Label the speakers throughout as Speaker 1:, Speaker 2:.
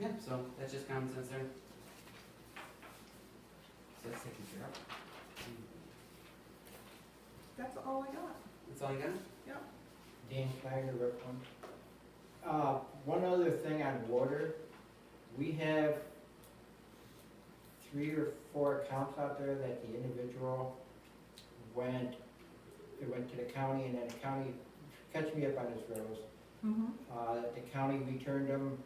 Speaker 1: Yeah, so that's just common sense there. So that's taken care of.
Speaker 2: That's all I got.
Speaker 1: That's all you got?
Speaker 3: Dan Schneider, Rep. One. Uh, one other thing on water, we have three or four accounts out there that the individual went, it went to the county and then the county, catch me up on this, Rose.
Speaker 2: Mm-hmm.
Speaker 3: Uh, the county returned them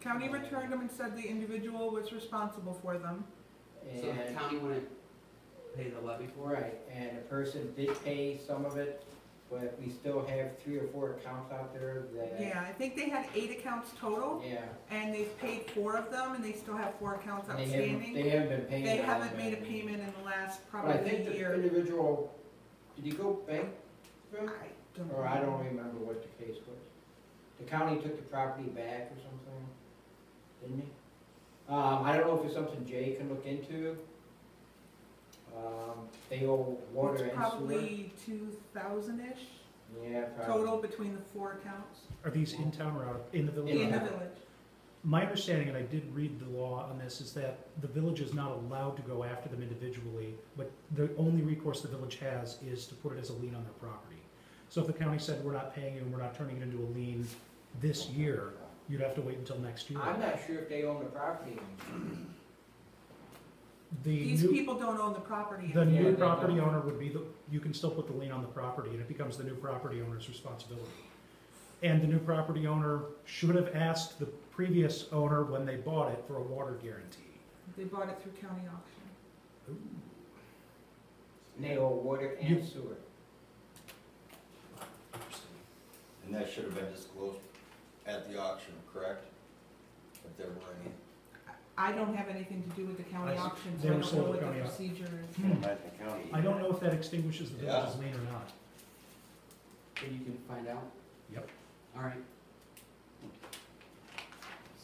Speaker 2: County returned them and said the individual was responsible for them.
Speaker 3: and.
Speaker 1: So the county wouldn't pay the levy for it?
Speaker 3: Right, and the person did pay some of it, but we still have three or four accounts out there that.
Speaker 2: Yeah, I think they had eight accounts total,
Speaker 3: Yeah.
Speaker 2: and they've paid four of them, and they still have four accounts
Speaker 3: and They haven't,
Speaker 2: outstanding.
Speaker 3: they haven't been paying.
Speaker 2: They
Speaker 3: all
Speaker 2: haven't
Speaker 3: of
Speaker 2: made a
Speaker 3: it.
Speaker 2: payment in the last
Speaker 3: But I
Speaker 2: probably
Speaker 3: think the
Speaker 2: year.
Speaker 3: individual, did he go bank?
Speaker 2: I don't
Speaker 3: Or I
Speaker 2: know.
Speaker 3: don't remember what the case was. The county took the property back or something, didn't he? Um, I don't know if it's something Jay can look into. Um, they owe water
Speaker 2: It's
Speaker 3: and sewer.
Speaker 2: probably two thousand-ish
Speaker 3: Yeah, probably.
Speaker 2: total between the four accounts
Speaker 4: Are these in town or out, in the village?
Speaker 2: in the
Speaker 3: Yeah.
Speaker 2: village.
Speaker 4: My understanding, and I did read the law on this, is that the village is not allowed to go after them individually, but the only recourse the village has is to put it as a lien on their property. So if the county said, we're not paying you and we're not turning it into a lien this year, you'd have to wait until next year.
Speaker 3: I'm not sure if they own the property anymore.
Speaker 4: The
Speaker 2: These
Speaker 4: new,
Speaker 2: people don't own the property.
Speaker 4: the
Speaker 3: Yeah,
Speaker 4: new
Speaker 3: they
Speaker 4: property
Speaker 3: don't.
Speaker 4: owner would be the, you can still put the lien on the property and it becomes the new property owner's responsibility. And the new property owner should have asked the previous owner when they bought it for a water guarantee.
Speaker 2: They bought it through county auction.
Speaker 3: They owe water and
Speaker 4: You-
Speaker 3: sewer.
Speaker 5: And that should have been disclosed at the auction, correct? If there were any.
Speaker 2: I don't have anything to do with the county
Speaker 4: I see.
Speaker 2: auction, so
Speaker 4: They
Speaker 2: I
Speaker 4: were
Speaker 2: don't know
Speaker 4: sold
Speaker 2: what
Speaker 4: at
Speaker 2: the
Speaker 4: county au-
Speaker 2: procedure is.
Speaker 4: I don't know if that extinguishes the village's lien or not.
Speaker 1: Then you can find out?
Speaker 4: Yep.
Speaker 1: Alright.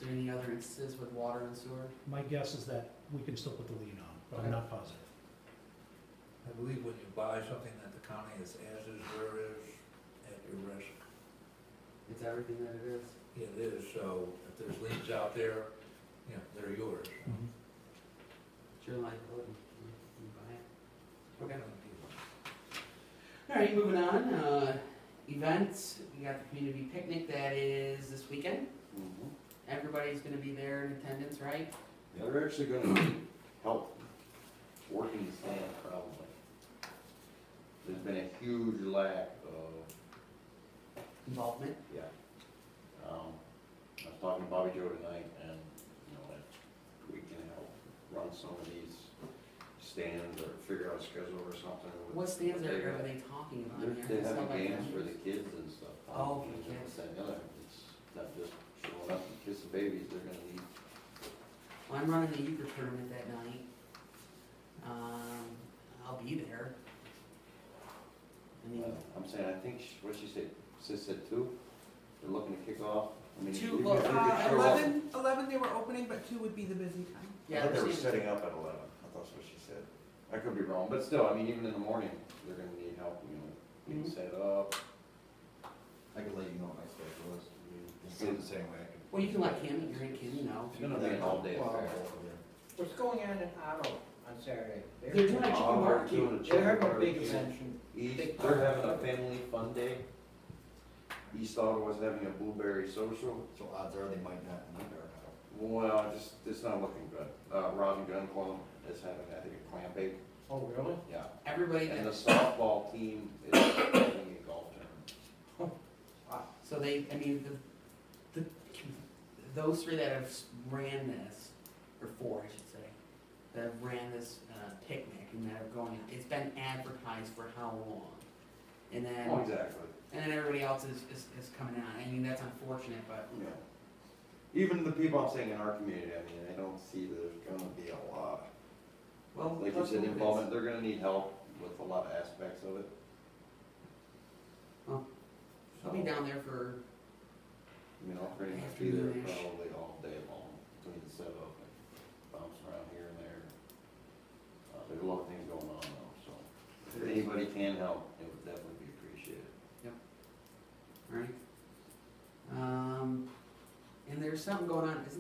Speaker 1: So any other instances with water and sewer?
Speaker 4: My guess is that we can still put the lien on, but I'm not positive.
Speaker 6: I believe when you buy something that the county is as is, where is, at your risk,
Speaker 1: It's everything that it is.
Speaker 6: it is, so if there's liens out there, you know, they're yours.
Speaker 1: It's your liability. You you buy it. Okay.
Speaker 6: Okay.
Speaker 1: Alright, moving on, uh, events, we got the community picnic that is this weekend.
Speaker 5: Mm-hmm.
Speaker 1: Everybody's gonna be there in attendance, right?
Speaker 5: They're actually gonna help working sand probably. There's been a huge lack of,
Speaker 1: Involvement.
Speaker 5: yeah. Um, I was talking to Bobby Joe tonight and, you know, if we can help run some of these stands or figure out a schedule or something. with-
Speaker 1: What stands
Speaker 5: they
Speaker 1: are,
Speaker 5: got.
Speaker 1: are they talking about
Speaker 5: They're,
Speaker 1: here?
Speaker 5: they're
Speaker 1: Stuff
Speaker 5: having
Speaker 1: like
Speaker 5: games
Speaker 1: that?
Speaker 5: for the kids and stuff.
Speaker 1: Oh, for
Speaker 5: You
Speaker 1: the
Speaker 5: know,
Speaker 1: kids.
Speaker 5: that other, it's not just showing up and kissing babies, they're gonna need,
Speaker 1: Well, I'm running the euchre tournament that night. Um, I'll be there. I mean,
Speaker 5: uh, I'm saying, I think, what she said, sis said two, they're looking to kick off. I mean,
Speaker 1: Two,
Speaker 5: even if
Speaker 1: well,
Speaker 5: they could
Speaker 2: Uh,
Speaker 5: show up-
Speaker 2: eleven, eleven they were opening, but two would be the busy time.
Speaker 5: I
Speaker 1: yeah,
Speaker 5: thought they were
Speaker 1: there's-
Speaker 5: setting up at eleven, I thought that's what she said. I could be wrong, but still, I mean, even in the morning, they're gonna need help, you know, getting
Speaker 1: Mhm.
Speaker 5: set up.
Speaker 7: I could let you know what my schedule is. It's the same way I could.
Speaker 1: well, you can let Kim, your and Kim know.
Speaker 5: It's gonna be an all day
Speaker 3: Well,
Speaker 5: affair.
Speaker 3: What's going on in Otto on Saturday? They're-
Speaker 1: They're doing a
Speaker 5: Oh,
Speaker 1: chicken
Speaker 5: we're
Speaker 1: barbecue.
Speaker 5: doing a
Speaker 3: They're
Speaker 5: chicken
Speaker 3: having a big
Speaker 5: barbecue.
Speaker 3: convention.
Speaker 5: East,
Speaker 3: Big
Speaker 5: they're
Speaker 3: party.
Speaker 5: having a family fun day. East Ottawa's having a blueberry social.
Speaker 7: So odds are they might not need our help.
Speaker 5: Well, just, it's not looking good. Uh, Robin Gun Club is having, I think, a clam bake,
Speaker 3: Oh, really?
Speaker 5: yeah.
Speaker 1: Everybody
Speaker 5: And the
Speaker 1: that,
Speaker 5: softball team is having a golf tournament.
Speaker 1: so they, I mean, the, the, those three that have s- ran this, or four, I should say, that have ran this, uh, picnic and that are going, it's been advertised for how long? And then.
Speaker 5: Oh, exactly,
Speaker 1: And then everybody else is, is, is coming out. I mean, that's unfortunate, but
Speaker 5: yeah. Even the people I'm saying in our community, I mean, I don't see there's gonna be a lot.
Speaker 1: well,
Speaker 5: Like you
Speaker 1: that's
Speaker 5: said,
Speaker 1: what it is.
Speaker 5: involvement, they're gonna need help with a lot of aspects of it.
Speaker 1: Well, I'll be down there for
Speaker 5: You know, pretty much be there probably all day long, between the setup and bumps around here and there. Uh, there's a lot of things going on though, so if anybody can help, it would definitely be appreciated.
Speaker 1: all right. Um, and there's something going on. Is